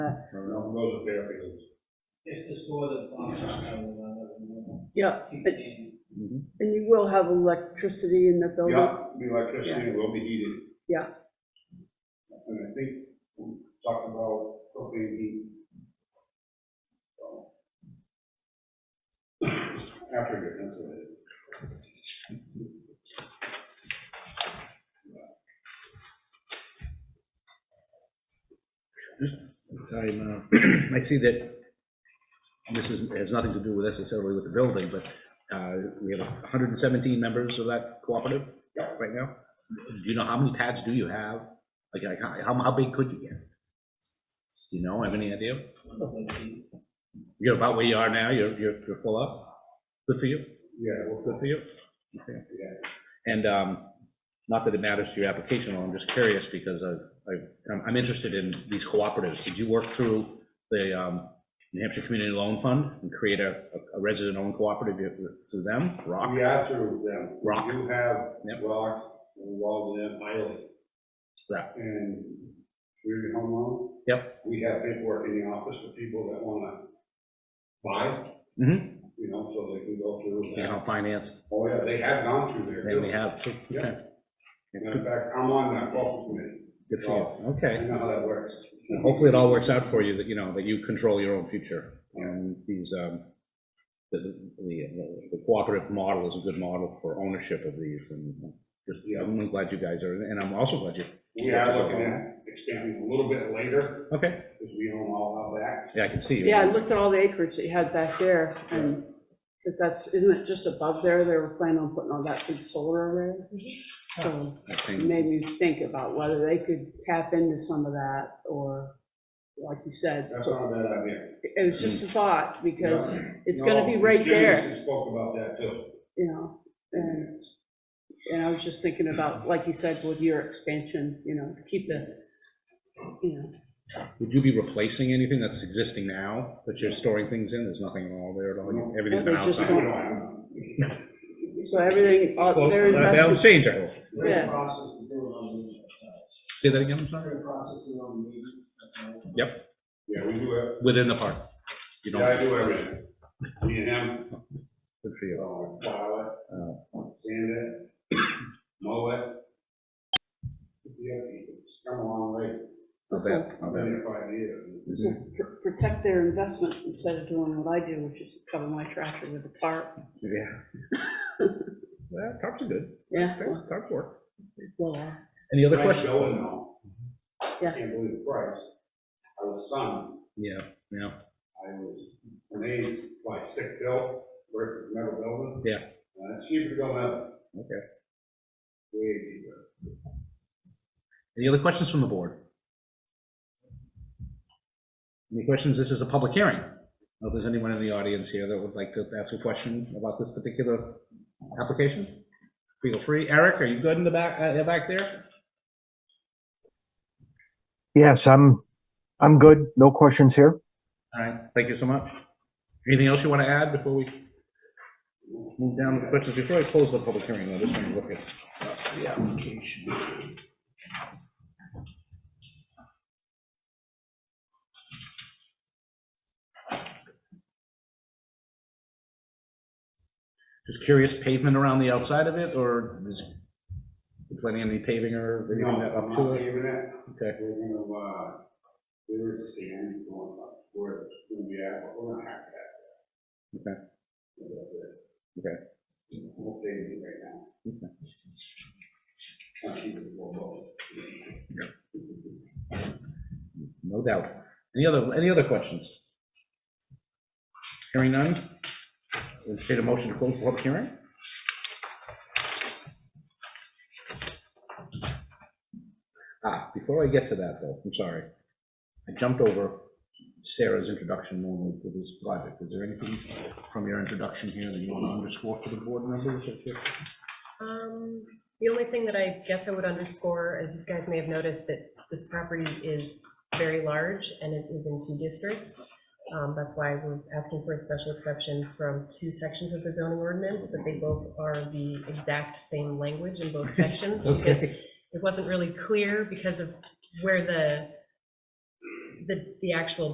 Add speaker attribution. Speaker 1: I'll go to Fairfield.
Speaker 2: Just the score that, um, I don't know,
Speaker 3: Yeah,
Speaker 2: I don't
Speaker 3: but-
Speaker 2: know.
Speaker 3: and you will have electricity in the building?
Speaker 1: Yeah, the electricity will be heated,
Speaker 3: Yeah,
Speaker 1: and I think we talked about propane heat. So. After you're insulated.
Speaker 4: I'm, uh, I see that this is, has nothing to do with necessarily with the building, but uh, we have 117 members of that cooperative right now. Do you know how many pads do you have? Like, like, how, how- how big could you get? Do you know, have any idea? You're about where you are now, you're, you're you're full up? Good for you,
Speaker 1: Yeah, well,
Speaker 4: good for you. Okay.
Speaker 1: yeah.
Speaker 4: And um, not that it matters to your application, I'm just curious because I, I- I'm- I'm interested in these cooperatives. Did you work through the um, New Hampshire Community Loan Fund and create a a resident-owned cooperative through them, Rock?
Speaker 1: We are through them.
Speaker 4: Rock.
Speaker 1: You have
Speaker 4: Yep.
Speaker 1: rock involved in that highly.
Speaker 4: Right.
Speaker 1: And we're home loan.
Speaker 4: Yep.
Speaker 1: We have paperwork in the office for people that wanna buy,
Speaker 4: Mm-hmm,
Speaker 1: you know, so they can go through.
Speaker 4: you
Speaker 1: that.
Speaker 4: know, finance,
Speaker 1: Oh, yeah, they have gone through there.
Speaker 4: they
Speaker 1: too.
Speaker 4: may have, too.
Speaker 1: Yeah.
Speaker 4: okay.
Speaker 1: Matter of fact, I'm on that welcome committee.
Speaker 4: Good for you,
Speaker 1: I
Speaker 4: okay.
Speaker 1: know how that works.
Speaker 4: And Hopefully it all works out for you, that, you know, that you control your own future. And these, um, the, the the cooperative model is a good model for ownership of these and just, I'm glad you guys are, and I'm also glad you
Speaker 1: We are looking at extending a little bit later,
Speaker 4: Okay,
Speaker 1: because we own all out back.
Speaker 4: yeah, I can see you.
Speaker 3: yeah, I looked at all the acreage that you had back there, and, because that's, isn't it just above there, they were planning on putting all that big solar array? So
Speaker 4: I
Speaker 3: it
Speaker 4: think-
Speaker 3: made me think about whether they could tap into some of that, or, like you said,
Speaker 1: That's not a bad idea.
Speaker 3: it was just a thought, because
Speaker 1: Yeah.
Speaker 3: it's gonna be
Speaker 1: No,
Speaker 3: right
Speaker 1: Jimmy
Speaker 3: there.
Speaker 1: spoke about that too.
Speaker 3: you know, and, and I was just thinking about, like you said, with your expansion, you know, keep the, you know,
Speaker 4: Would you be replacing anything that's existing now, that you're storing things in? There's nothing at all there at all, everything's been
Speaker 3: They're just
Speaker 4: outside.
Speaker 3: going- so everything, uh, all-
Speaker 4: Well,
Speaker 3: there is
Speaker 4: that- That'll
Speaker 3: rest,
Speaker 4: change, I hope.
Speaker 2: We're in
Speaker 3: Yeah.
Speaker 2: the process of doing our meetings.
Speaker 4: Say that again, I'm
Speaker 2: We're
Speaker 4: sorry?
Speaker 2: in the process of doing our meetings. that's all.
Speaker 4: Yep,
Speaker 1: Yeah, we do it.
Speaker 4: within the park. You
Speaker 1: Yeah, I
Speaker 4: don't,
Speaker 1: do everything. Me and him,
Speaker 4: good for
Speaker 1: you
Speaker 4: you.
Speaker 1: know, plow it, sand it, mow it. Yeah, it's come a long way.
Speaker 4: Not
Speaker 3: so,
Speaker 4: bad,
Speaker 1: I've
Speaker 4: not
Speaker 1: been
Speaker 4: bad.
Speaker 1: here five years.
Speaker 3: so pr- protect their investment instead of doing what I do, which is cover my tractor with a tarp,
Speaker 4: Yeah. Well, cops are good.
Speaker 3: yeah, well,
Speaker 4: Cops work.
Speaker 3: well, uh,
Speaker 4: Any other
Speaker 1: Nice
Speaker 4: questions?
Speaker 1: going though.
Speaker 3: Yeah.
Speaker 1: Can't believe the price. I was stunned.
Speaker 4: Yeah, yeah,
Speaker 1: I was amazed by stick built versus metal building.
Speaker 4: Yeah.
Speaker 1: Uh, it's cheaper going up,
Speaker 4: okay.
Speaker 1: way cheaper.
Speaker 4: Any other questions from the board? Any questions? This is a public hearing. I hope there's anyone in the audience here that would like to ask a question about this particular application. Feel free. Eric, are you good in the back, uh, back there?
Speaker 5: Yes, I'm, I'm good. No questions here.
Speaker 4: All right, thank you so much. Anything else you want to add before we move down to the questions? Before I close the public hearing, though, just want to look at uh, the application. Just curious, pavement around the outside of it, or is you planning any paving or anything that up
Speaker 1: No,
Speaker 4: to
Speaker 1: not
Speaker 4: it?
Speaker 1: even it.
Speaker 4: Okay,
Speaker 1: We're gonna, uh, there is sand going up, where it's gonna be at, but we're not happy at that.
Speaker 4: Okay.
Speaker 1: Okay.
Speaker 4: Okay.
Speaker 1: Okay. We'll pay it right now. Not cheaper than Volvo.
Speaker 4: no doubt. Any other, any other questions? Hearing none? Entertain a motion to close the public hearing? Ah, before I get to that, though, I'm sorry. I jumped over Sarah's introduction normally to this project. Is there anything from your introduction here that you want to underscore for the board members? that you-
Speaker 6: Um, The only thing that I guess I would underscore, as you guys may have noticed, that this property is very large and it is in two districts. Um, That's why we're asking for a special exception from two sections of the zoning ordinance, but they both are the exact same language in both sections. because It wasn't really clear because of where the the, the actual